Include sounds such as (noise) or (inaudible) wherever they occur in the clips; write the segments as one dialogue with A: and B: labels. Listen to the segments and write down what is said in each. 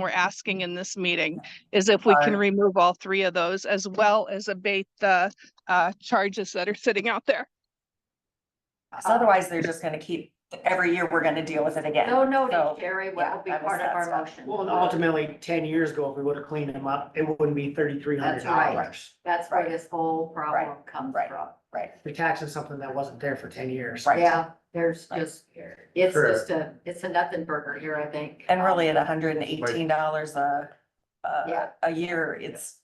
A: we're asking in this meeting is if we can remove all three of those as well as abate the uh charges that are sitting out there.
B: Because otherwise, they're just gonna keep, every year, we're gonna deal with it again.
C: No, no,
B: So,
C: Jerry,
B: yeah,
C: what will be
B: that was
C: part of
B: that
C: our
B: stuff.
C: motion?
D: Well, and ultimately, ten years ago, if we would have cleaned them up, it wouldn't be thirty-three hundred
C: That's right.
D: dollars.
C: That's where this whole problem comes
B: right.
C: from.
B: Right,
D: We're taxing something that wasn't there for ten years.
B: Right.
C: Yeah, there's
B: Right.
C: just, it's
E: Sure.
C: just a, it's a nothing burger here, I think.
B: and really at hundred and eighteen dollars a, a,
C: Yeah.
B: a year, it's,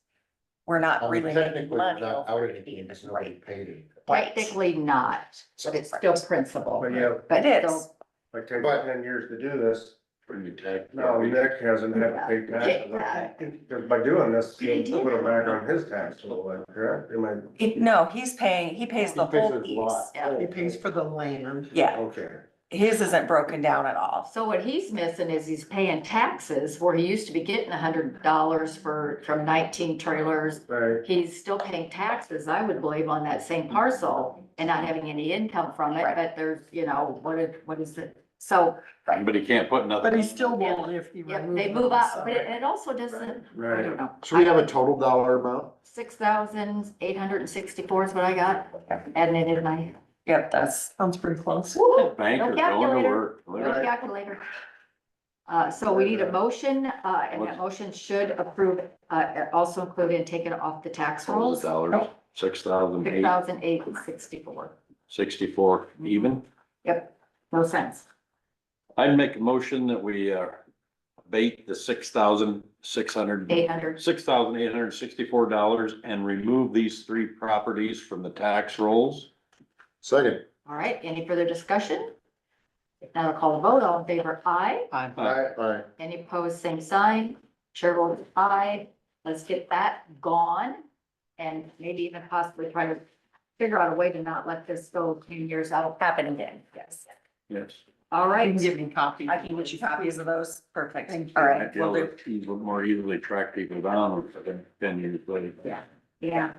B: we're not
E: Um,
B: really
E: Technically,
B: making
E: we're
B: money.
E: not
B: over
E: out
B: it.
E: anything, because nobody
B: Right.
E: paid it.
B: Right.
C: Technically not, but it's still principle.
F: But yeah,
C: But
B: It
C: still-
B: is.
F: like take
E: But-
F: ten years to do this,
E: Pretty tax.
F: no, Nick hasn't had to pay taxes.
C: Yeah.
F: Because by doing this, he put him back on his tax a little bit, correct? Am I-
B: It- No, he's paying, he pays the
E: He pays
B: whole
E: his lot.
B: piece.
C: yeah.
D: It pays for the land.
B: Yeah,
F: Okay.
B: his isn't broken down at all.
C: So what he's missing is he's paying taxes where he used to be getting a hundred dollars for, from nineteen trailers.
F: Right,
C: He's still paying taxes, I would believe, on that same parcel and not having any income from it,
B: Right.
C: but there's, you know, what is, what is it? So
G: But he can't put nothing.
D: But he still won't if he
C: yeah,
D: removes.
C: they
D: them,
C: move up,
D: so-
C: but it it also doesn't, I
F: right.
C: don't know.
E: So we have a total dollar amount?
C: Six thousand eight hundred and sixty-four is what I got, adding it in my
B: Yep, that's. Sounds pretty close.
G: Banker going to
C: calculator.
G: work.
C: little calculator. Uh, so we need a motion, uh, and that motion should approve, uh, also include and take it off the tax rolls.
G: Dollars, six thousand
C: Six
G: eight
C: thousand eight sixty-four,
G: sixty-four
B: Mm-hmm.
G: even.
C: no cents.
G: I'd make a motion that we, uh, abate the six thousand six hundred,
C: Eight hundred,
G: six thousand eight hundred sixty-four dollars and remove these three properties from the tax rolls.
E: Second.
C: all right, any further discussion? If not, I'll call the vote, all in favor, aye,
E: Aye. Aye.
C: any opposed, same sign, chair votes aye, let's get that gone. And maybe even possibly try to figure out a way to not let this go ten years out.
B: Happen again, yes.
G: Yes.
C: All right.
D: me copies.
B: I can get you copies of those. Perfect.
D: Thank you.
B: All right,
G: That
B: we'll do.
G: will more easily track people down than ten years later.
C: Yeah,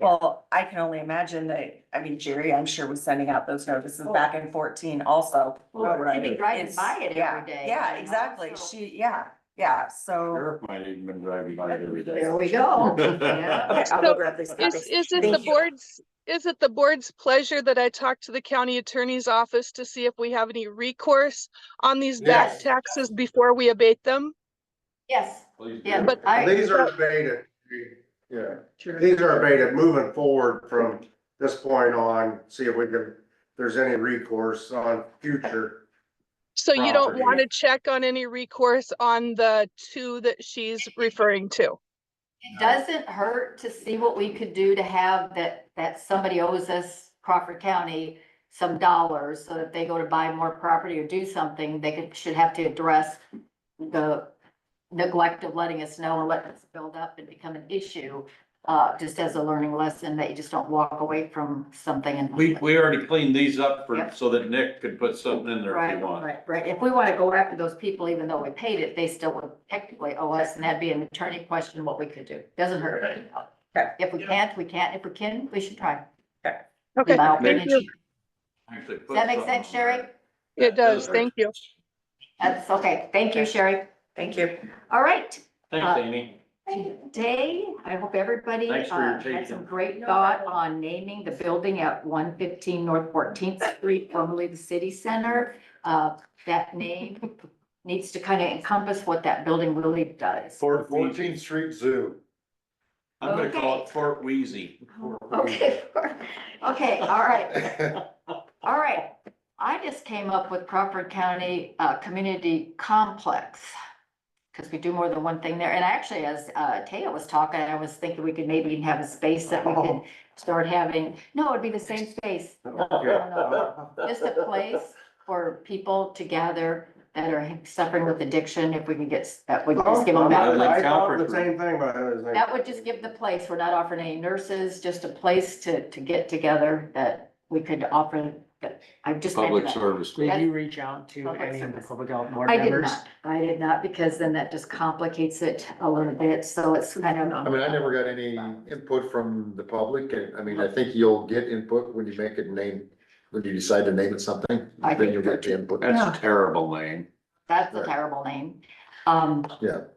B: Well, I can only imagine that, I mean, Jerry, I'm sure was sending out those notices back in fourteen also.
C: well,
D: Right.
C: she'd be driving
B: It's-
C: by it
B: yeah,
C: every day. you
B: Yeah,
C: know,
B: exactly.
C: so-
B: She, yeah, yeah, so.
G: Sheriff might even been driving by it every day.
C: There we go.
G: (laughs)
C: Yeah.
B: Okay, I'll go grab these
A: Is,
B: copies.
A: is it the
B: Thank you.
A: board's, is it the board's pleasure that I talk to the county attorney's office to see if we have any recourse on these back
C: Yes.
A: taxes before we abate them?
C: Yes,
G: Please do.
C: yeah, but I,
F: These are abated, yeah, these are abated, moving forward from this point on, see if we can, if there's any recourse on future.
A: So you don't
F: Property.
A: want to check on any recourse on the two that she's referring to?
C: it doesn't hurt to see what we could do to have that, that somebody owes us Crawford County some dollars, so that if they go to buy more property or do something, they could, should have to address the neglect of letting us know and letting us build up and become an issue, uh, just as a learning lesson, that you just don't walk away from something and.
G: We, we already cleaned these up for,
C: Yep.
G: so that Nick could put something in there if
C: Right,
G: he wants.
C: right, right. If we want to go after those people, even though we paid it, they still would technically owe us, and that'd be an attorney question, what we could do. Doesn't hurt.
B: Okay.
C: If we can't, we can't. If we can, we should try.
A: Okay,
C: In my
A: thank
C: opinion.
A: you.
G: Actually put
C: Does that make
G: something
C: sense,
G: in there.
C: Sherry?
A: It does,
G: hurt.
A: thank you.
C: That's okay. Thank you, Sherry.
B: Thank you.
C: All right. Uh,
G: Thanks, Amy.
C: Today, I hope everybody
G: Thanks for your
C: uh, had some
G: taking.
C: great thought on naming the building at one fifteen North Fourteenth Street, formerly the city center. Uh, that name needs to kind of encompass what that building really does.
E: For Fourteenth Street
F: (laughs)
E: Zoo.
G: I'm gonna call it
C: Okay.
G: Fort Wheezy.
C: Oh, Okay, (laughs) okay, all right, all right. I just came up with Crawford County uh Community Complex. Cause we do more than one thing there. And actually, as uh Taya was talking, I was thinking we could maybe even have a space that we could start having, no, it'd be the same space. Just a place for people to gather that are suffering with addiction, if we can get, s- that would just give them
F: Oh, I
C: that.
G: Like
F: I thought
G: Calvert
F: the same thing, but I was like.
C: That would just give the place, we're not offering any nurses, just a place to, to get together that we could offer, that, I've just.
G: Public
C: mentioned that.
G: service.
D: Did you reach out to
C: Public
D: any of the
C: service.
D: public health board
C: I did
D: members?
C: not, I did not, because then that just complicates it a little bit, so it's kind
E: I
C: of,
E: mean, I never got any input from the public, and I mean, I think you'll get input when you make it name, when you decide to name it something,
C: I
E: then
C: think
E: you'll get your input.
G: That's a terrible name.
C: that's a
E: Right.
C: terrible name. Um,
E: Yeah.